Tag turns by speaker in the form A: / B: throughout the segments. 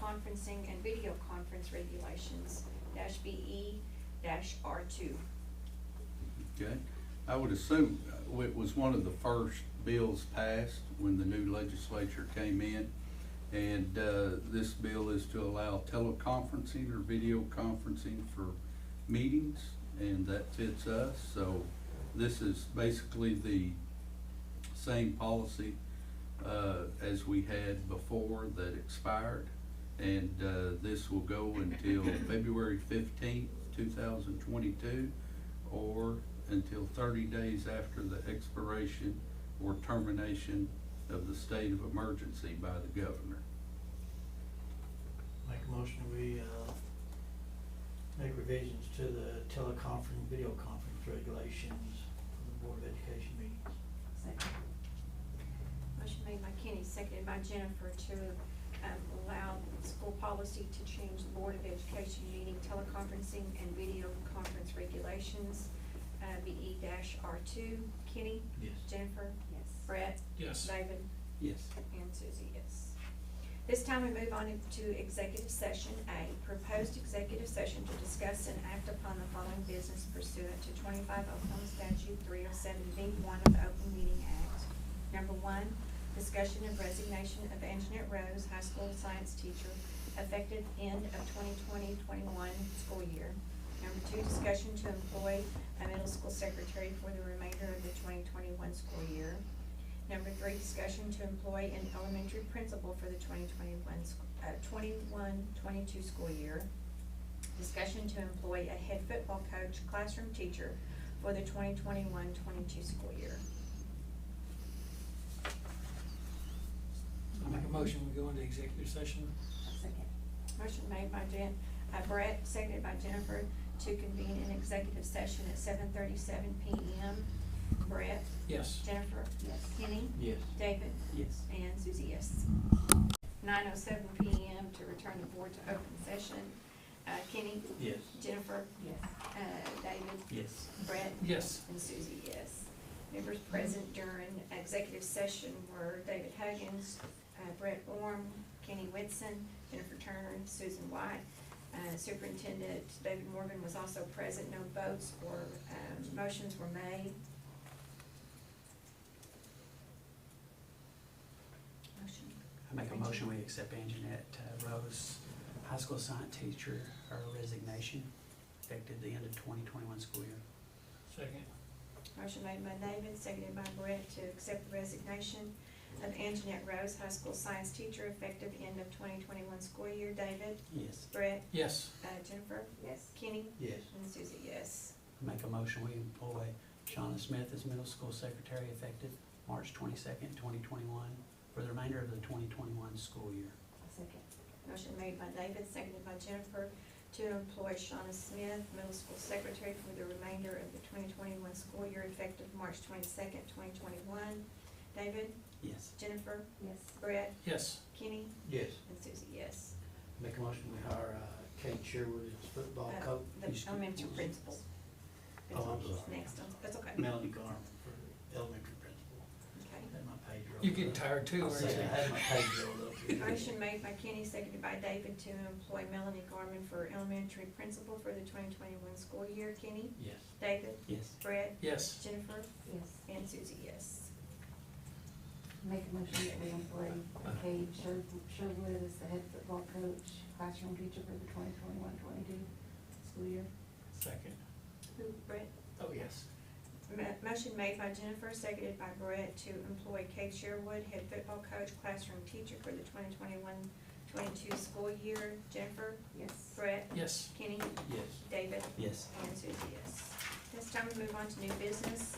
A: teleconferencing and video conference regulations, dash BE, dash R two.
B: Okay, I would assume uh, it was one of the first bills passed when the new legislature came in. And uh, this bill is to allow teleconferencing or video conferencing for meetings, and that fits us. So this is basically the same policy uh, as we had before that expired. And uh, this will go until February fifteenth, two thousand twenty-two, or until thirty days after the expiration or termination of the state of emergency by the governor.
C: Make a motion, we, uh, make revisions to the teleconference, video conference regulations for the Board of Education meetings.
A: Motion made by Kenny, seconded by Jennifer to, um, allow school policy to change the Board of Education meeting teleconferencing and video conference regulations, uh, BE dash R two. Kenny?
C: Yes.
A: Jennifer?
D: Yes.
A: Brett?
E: Yes.
A: David?
B: Yes.
A: And Susie, yes. This time we move on to executive session A, proposed executive session to discuss and act upon the following business pursuant to twenty-five Oklahoma statute three oh seven B one of the Open Meeting Act. Number one, discussion of resignation of Anjanette Rose, high school science teacher, effective end of 2020-21 school year. Number two, discussion to employ a middle school secretary for the remainder of the twenty twenty-one school year. Number three, discussion to employ an elementary principal for the 2021 sc- uh, 21, 22 school year. Discussion to employ a head football coach, classroom teacher for the 2021, 22 school year.
E: I make a motion, we go into executive session.
D: Second.
A: Motion made by Jen, uh, Brett, seconded by Jennifer to convene an executive session at 7:37 PM. Brett,
E: Yes.
A: Jennifer,
D: Yes.
A: Kenny,
C: Yes.
A: David,
C: Yes.
A: and Susie, yes. Nine oh seven PM to return the board to open session. Uh, Kenny,
C: Yes.
A: Jennifer,
D: Yes.
A: uh, David,
C: Yes.
A: Brett,
E: Yes.
A: and Susie, yes. Members present during executive session were David Huggins, uh, Brett Orm, Kenny Whitson, Jennifer Turner, and Susan White. Uh, Superintendent David Morgan was also present. No votes or um, motions were made. Motion.
F: I make a motion, we accept Anjanette uh, Rose, high school science teacher, her resignation effective the end of twenty twenty-one school year.
E: Second.
A: Motion made by David, seconded by Brett to accept the resignation of Anjanette Rose, high school science teacher, effective end of twenty twenty-one school year. David,
F: Yes.
A: Brett,
E: Yes.
A: uh, Jennifer,
D: Yes.
A: Kenny,
C: Yes.
A: and Susie, yes.
F: I make a motion, we employ Shauna Smith as middle school secretary effective March twenty-second, twenty twenty-one for the remainder of the twenty twenty-one school year.
D: Second.
A: Motion made by David, seconded by Jennifer to employ Shauna Smith, middle school secretary, for the remainder of the twenty twenty-one school year, effective March twenty-second, twenty twenty-one. David,
F: Yes.
A: Jennifer,
D: Yes.
A: Brett,
E: Yes.
A: Kenny,
C: Yes.
A: and Susie, yes.
C: Make a motion, we hire, uh, Kate Sherwood as football
A: Uh,
C: coach.
A: The elementary principal.
C: Oh, I'm sorry.
A: Next, on- that's okay.
C: Melanie Garner for elementary principal.
A: Okay.
C: Had my page rolled up.
E: You're getting tired too,
C: I
E: aren't
C: said I had
E: you?
C: my page rolled up here.
A: Motion made by Kenny, seconded by David to employ Melanie Garmin for elementary principal for the twenty twenty-one school year. Kenny?
C: Yes.
A: David?
F: Yes.
A: Brett?
E: Yes.
A: Jennifer?
D: Yes.
A: And Susie, yes.
D: Make a motion that we employ Kate Sher- Sherwood as the head football coach, classroom teacher for the 2021-22 school year.
E: Second.
A: Who, Brett?
E: Oh, yes.
A: Mo- Motion made by Jennifer, seconded by Brett to employ Kate Sherwood, head football coach, classroom teacher for the 2021-22 school year. Jennifer?
D: Yes.
A: Brett?
E: Yes.
A: Kenny?
C: Yes.
A: David?
F: Yes.
A: And Susie, yes. This time we move on to new business.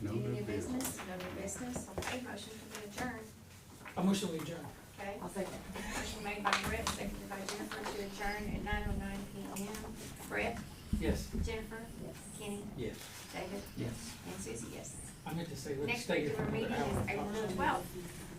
B: No
A: Any
B: new
A: new
B: business.
A: business? No new business. Okay, motion to adjourn.
E: I motion we adjourn.
A: Okay.
D: I'll second.
A: Motion made by Brett, seconded by Jennifer to adjourn at nine oh nine P M. Brett,
E: Yes.
A: Jennifer,
D: Yes.
A: Kenny,
C: Yes.
A: David,
F: Yes.
A: and Susie, yes.
E: I meant to say, let's
A: Next
E: stay here for
A: regular
E: another
A: meeting
E: hour.
A: is April twelfth.